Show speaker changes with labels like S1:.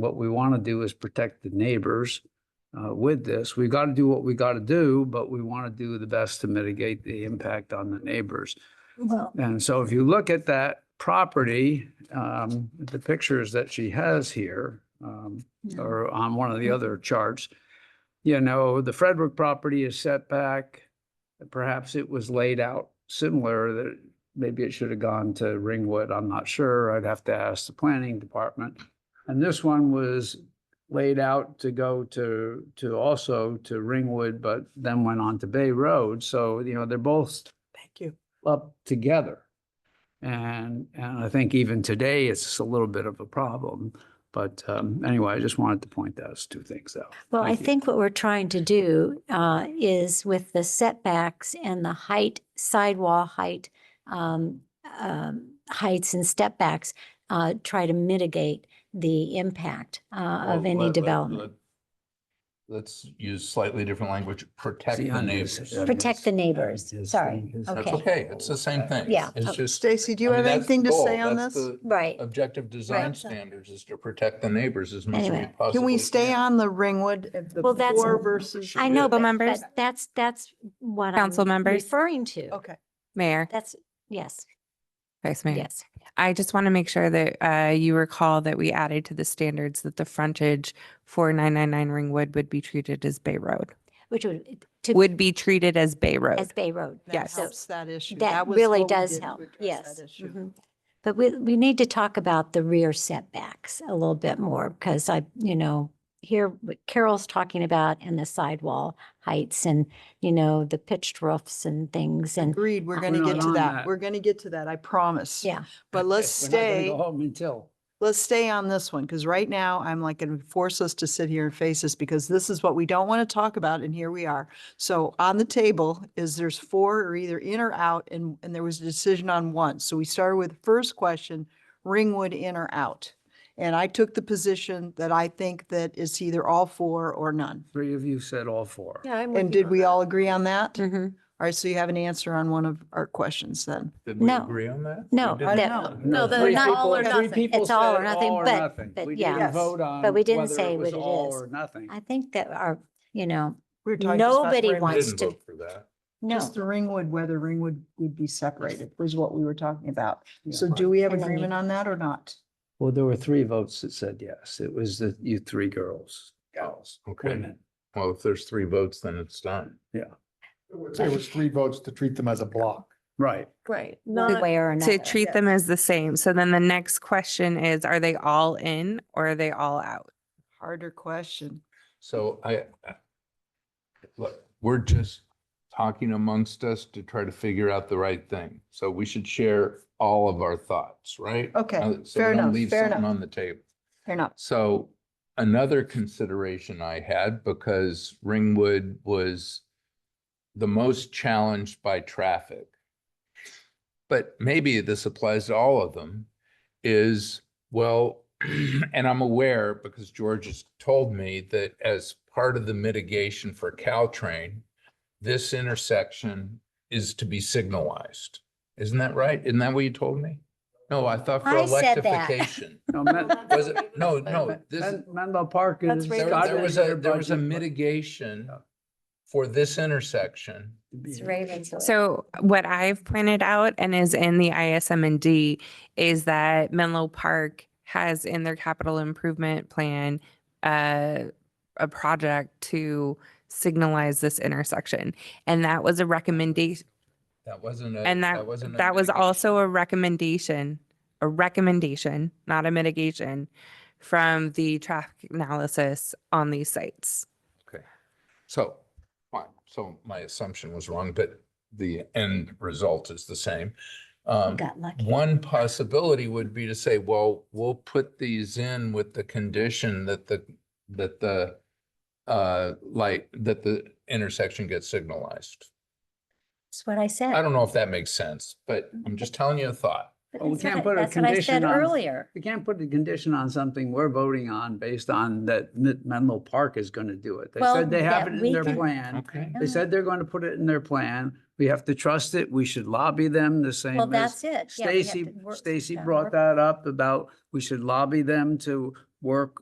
S1: What we want to do is protect the neighbors uh, with this. We got to do what we got to do, but we want to do the best to mitigate the impact on the neighbors.
S2: Well,
S1: And so if you look at that property, um, the pictures that she has here, um,
S2: no.
S1: or on one of the other charts, you know, the Frederick property is set back. Perhaps it was laid out similar that maybe it should have gone to Ringwood. I'm not sure. I'd have to ask the planning department. And this one was laid out to go to, to also to Ringwood, but then went on to Bay Road. So, you know, they're both
S3: Thank you.
S1: up together. And, and I think even today, it's a little bit of a problem. But um, anyway, I just wanted to point those two things out.
S2: Well, I
S1: Thank you.
S2: think what we're trying to do uh, is with the setbacks and the height, sidewall height, um, um, heights and step backs, uh, try to mitigate the impact uh, of
S4: Well, let-
S2: any
S4: let-
S2: development.
S4: let- Let's use slightly different language, protect
S1: See,
S4: the
S1: I know you
S4: neighbors.
S1: said that.
S2: Protect the
S1: Yes.
S2: neighbors,
S1: Yes,
S2: sorry,
S1: yes.
S4: That's
S2: okay,
S4: okay, it's the same thing.
S2: Yeah.
S4: It's just.
S3: Stacy, do you
S4: I mean,
S3: have
S4: that's
S3: anything
S4: the
S3: to
S4: goal.
S3: say on
S4: That's
S3: this?
S4: the
S2: right.
S4: Objective design
S2: Right.
S4: standards is to protect the neighbors as much as we
S2: Anyway.
S4: possibly.
S3: Can we stay on the Ringwood, uh, the
S2: Well, that's-
S3: before versus?
S2: I know,
S5: Council
S2: but
S5: members?
S2: but that's, that's what I'm
S5: Council members?
S2: referring to.
S3: Okay,
S5: Mayor,
S2: That's, yes,
S5: Vice Mayor,
S2: yes.
S5: I just want to make sure that uh, you recall that we added to the standards that the frontage for 999 Ringwood would be treated as Bay Road,
S2: Which would, to,
S5: would be treated as Bay
S2: as
S5: Road.
S2: Bay Road.
S3: that
S5: Yes.
S3: helps that issue.
S2: That
S3: was
S2: really
S3: what we
S2: does
S3: did to
S2: help,
S3: address
S2: yes.
S3: that issue.
S1: Mm-hmm.
S2: Mhm. But we, we need to talk about the rear setbacks a little bit more because I, you know, here what Carol's talking about and the sidewall heights and, you know, the pitched roofs and things and,
S3: Agreed, we're
S2: We're
S3: gonna
S1: not
S3: get to
S1: on
S3: that.
S1: that.
S3: We're gonna get to that, I promise.
S2: yeah.
S3: But let's
S1: We're not gonna
S3: stay,
S1: Go home until.
S3: let's stay on this one, because right now I'm like gonna force us to sit here and face this, because this is what we don't want to talk about, and here we are. So on the table is there's four are either in or out, and, and there was a decision on one. So we started with the first question, Ringwood in or out? And I took the position that I think that it's either all four or none.
S1: Three of you said all four.
S6: Yeah, I'm with
S3: And
S6: you
S3: did
S6: on
S3: we
S6: that.
S3: all agree on that?
S2: Mm.
S3: All
S5: Mhm.
S3: right, so you have an answer on one of our questions then.
S4: Did we
S2: No.
S4: agree on that? We
S2: No,
S4: didn't?
S3: I
S2: that-
S3: don't know.
S6: No, the
S1: three
S2: not
S1: people-
S6: all or
S1: three
S6: nothing.
S1: people
S2: It's all or
S1: said
S2: nothing, but- but
S1: We
S2: yeah.
S1: didn't vote on.
S2: But we didn't
S1: whether
S2: say
S1: was
S2: what it
S1: all
S2: is.
S1: Or nothing.
S2: I think that our, you know,
S3: We were talking just about
S2: Nobody
S3: Ringwood.
S4: We
S2: wants
S4: Didn't
S2: to-
S4: vote for that.
S2: no,
S3: Just the Ringwood, whether Ringwood would be separated was what we were talking about.
S1: Yeah.
S3: So do we have
S2: And then you-
S3: agreement on that or not?
S1: Well, there were three votes that said yes. It was the, you three girls, gals,
S4: Okay.
S1: women.
S4: Well, if there's three votes, then it's done.
S7: There was three votes to treat them as a block.
S1: Right.
S6: Right.
S2: one
S6: Not,
S2: way or another.
S5: To treat them as the same. So then the next question is, are they all in or are they all out?
S3: Harder question.
S4: So I,
S3: Mm-hmm.
S4: I- look, we're just talking amongst us to try to figure out the right thing. So we should share all of our thoughts, right?
S3: Okay,
S4: Uh, so we
S3: fair
S4: don't
S3: enough,
S4: leave
S3: fair
S4: something
S3: enough.
S4: On the table.
S3: Fair enough.
S4: So another consideration I had, because Ringwood was the most challenged by traffic, but maybe this applies to all of them, is, well, and I'm aware because George has told me that as part of the mitigation for Caltrain, this intersection is to be signalized. Isn't that right? Isn't that what you told me? No, I thought for
S2: I said that.
S4: electrification.
S1: No, Men-
S4: Was it, no, no, this,
S1: Men- Menlo Park
S6: That's
S1: is.
S6: right.
S4: there
S1: got
S4: there
S1: it
S4: was
S1: in
S4: a,
S1: their
S4: there was a
S1: budget, but-
S4: mitigation for this intersection.
S1: to be
S2: It's
S1: here.
S2: Ravenswood.
S5: So what I've pointed out and is in the ISM and D is that Menlo Park has in their capital improvement plan uh, a project to signalize this intersection. And that was a recommendation,
S4: That wasn't a.
S5: and that,
S4: wasn't a
S5: that was
S4: mitigation.
S5: also a recommendation, a recommendation, not a mitigation from the traffic analysis on these sites.
S4: So, fine, so my assumption was wrong, but the end result is the same. Um,
S2: Got lucky.
S4: One possibility would be to say, well, we'll put these in with the condition that the, that the, uh, light, that the intersection gets signalized.
S2: That's what I said.
S4: I don't know if that makes sense, but I'm just telling you a thought.
S2: But
S1: Well, we
S2: that's what
S1: can't
S2: I-
S1: put a
S2: That's what I said
S1: condition on-
S2: earlier.
S1: We can't put a condition on something we're voting on based on that Men- Menlo Park is going to do it. They
S2: Well,
S1: said they have
S2: that
S1: it
S2: we
S1: in their
S2: can-
S1: plan.
S4: Okay.
S1: They said they're going to put it in their plan. We have to trust it. We should lobby them the same
S2: Well,
S1: as
S2: that's it. Yeah, we have
S1: Stacy,
S2: to work-
S1: Stacy
S2: gotta
S1: brought
S2: work-
S1: that up about we should lobby them to work